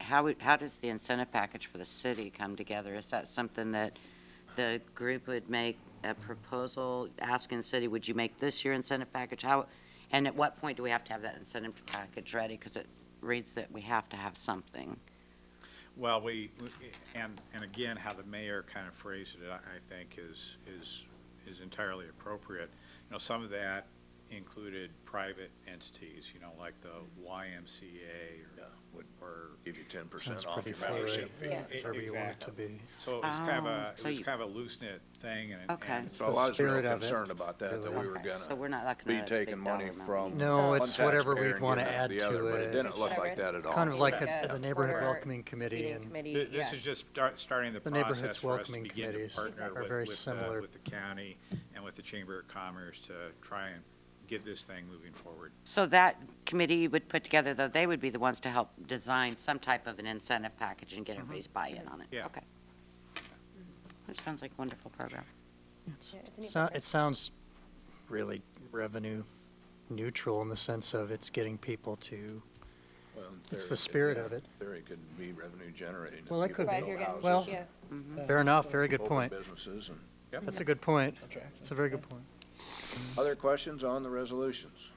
how, would- how does the incentive package for the city come together? Is that something that the group would make a proposal, asking the city, would you make this your incentive package? How, and at what point do we have to have that incentive package ready? Because it reads that we have to have something. Well, we, and, and again, how the mayor kind of phrased it, I I think, is, is, is entirely appropriate. You know, some of that included private entities, you know, like the YMCA Yeah, would or, or give you ten percent Sounds off pretty your fluid, membership fee. Yeah. whatever you want it to Exactly. be. So it was kind of a, Oh, it so was you- kind of a loose-knit thing, and. Okay. and- So I was real spirit of it. concerned about that, that we were Okay, So gonna we're not looking be at a big taking money dollar amount. from. No, So- one it's whatever taxpayer we'd and want to giving add the other, to But it it. didn't look like that at all. Kind of like a- Yeah. the neighborhood Or welcoming committee Feeding and- committee, Th- This yeah. is just start, starting the The neighborhood's process for us to welcoming begin to committees partner are with, very with the, similar. with the county and with the Chamber of Commerce to try and get this thing moving forward. So that committee you would put together, though, they would be the ones to help design some type of an incentive package and get everybody's buy-in on it? Yeah. Okay. That sounds like a wonderful program. It's- Yeah, it's It neat. sou- it sounds really revenue neutral in the sense of it's getting people to, Well, in It's the theory, spirit yeah, of it. in Theory it could be revenue generating. Well, it People could But if be. build you're getting- Well- houses yeah. Mm-hmm. fair enough, very good and point. Open businesses and, That's a good point. It's a very good point. other questions on the resolutions?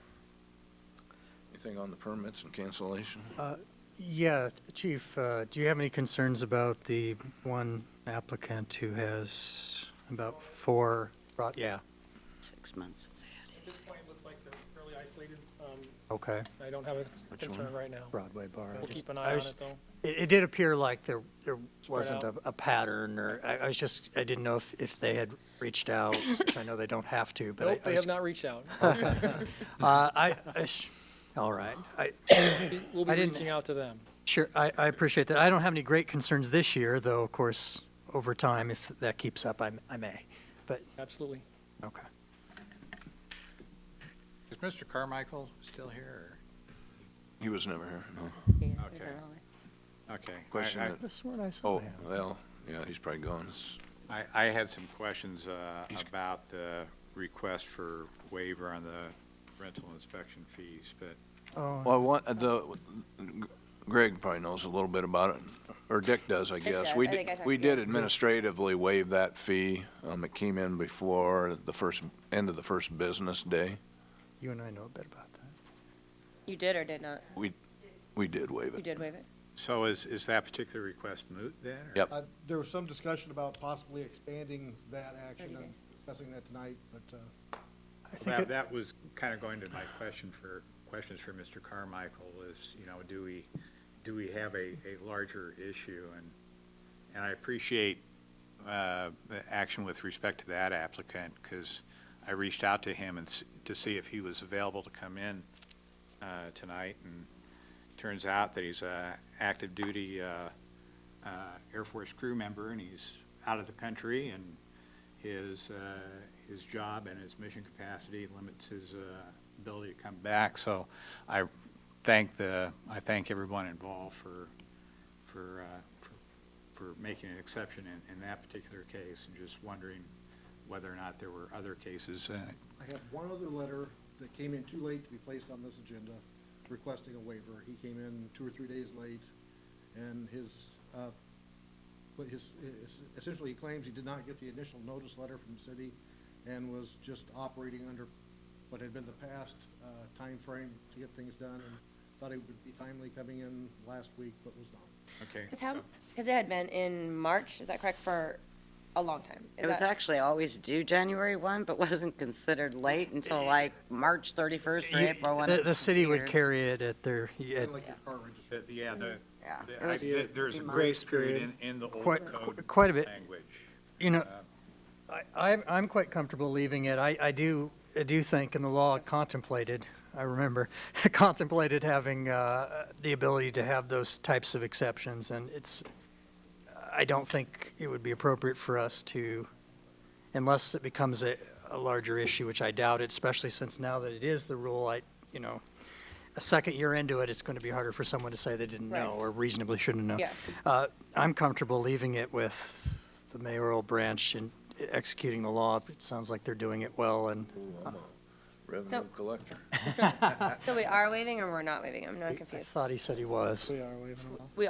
Anything on the permits and cancellation? Uh, Yeah, Chief, uh, do you have any concerns about the one applicant who has about four, broad- yeah, Six months. it's ahead. At this point, it looks like they're fairly isolated. Um, okay, I don't have a Which concern one? right now. Broadway Bar. We'll Just- keep an I eye on was- it, though. It, it did appear like there, there wasn't a, out. a pattern, or, I, I was just, I didn't know if, if they had reached out, which I know they don't have to, but I- Nope, I, they was- have not reached out. uh, I, I sh- all right, I, We- We'll I be didn't- reaching out to them. sure, I, I appreciate that. I don't have any great concerns this year, though, of course, over time, if that keeps up, I, m- I may, but, Absolutely. okay. Is Mr. Carmichael still here? He was never here, no. Yeah, Okay. there's another one. or- Okay. I- Question I- that- This one I saw Oh, well, yeah, he's probably gone. It's- I, I had some questions uh, He's- about the request for waiver on the rental inspection fees, but Oh, Well, what, the, Greg probably knows a little bit about it, or Dick does, I guess. does. We I did- think I talked We to did you. administratively waive that fee. Um, it came in before the first, end of the first business day. you and I know a bit about that. You did or did not? We did waive You it. did waive it? so is, is that particular request moot then? or- Yep. Uh, There was some discussion about possibly expanding that action, Thirty I'm days. discussing that tonight, but, uh, I think That, it, that was kind of going to my question for, questions for Mr. Carmichael is, you know, do we, do we have a, a larger issue? And, and I appreciate, uh, the action with respect to that applicant, because I reached out to him and s- to see if he was available to come in, uh, tonight, and turns out that he's a active duty, uh, uh, Air Force crew member, and he's out of the country, and his, uh, his job and his mission capacity limits his uh, ability to come back. So I thank the, I thank everyone involved for, for, uh, for- for making an exception in, in that particular case, and just wondering whether or not there were other cases. uh, I have one other letter that came in too late to be placed on this agenda requesting a waiver. He came in two or three days late, and his, uh, but his, es- essentially, he claims he did not get the initial notice letter from the city and was just operating under what had been the past uh, timeframe to get things done, and thought he would be timely coming in last week, but was not. Okay. Because how, because it had been in March, is that correct, for a long time? Is It was that- actually always due January 1, but wasn't considered late until like March 31st or you- April 1. the, the city would Weird. carry it at their, at Kind of like your car registration. Uh, Yeah, the, Yeah. the- It I- was- the- there's a grace period in, in the old uh, Quite- code. quite a bit. Language. You know, I, I'm, I'm quite comfortable leaving it. I, I do, I do think in the law it contemplated, I remember, contemplated having, uh, the ability to have those types of exceptions, and it's, I don't think it would be appropriate for us to, unless it becomes a, a larger issue, which I doubt it, especially since now that it is the rule, I, you know, a second year into it, it's gonna be harder for someone to say they didn't know Right. or reasonably shouldn't know. Yeah. Uh, I'm comfortable leaving it with the mayoral branch and executing the law. It sounds like they're doing it well, and Ooh, I'm a Revenue collector. So we are waiving or we're not waiving? I'm not I confused. thought he said he was. We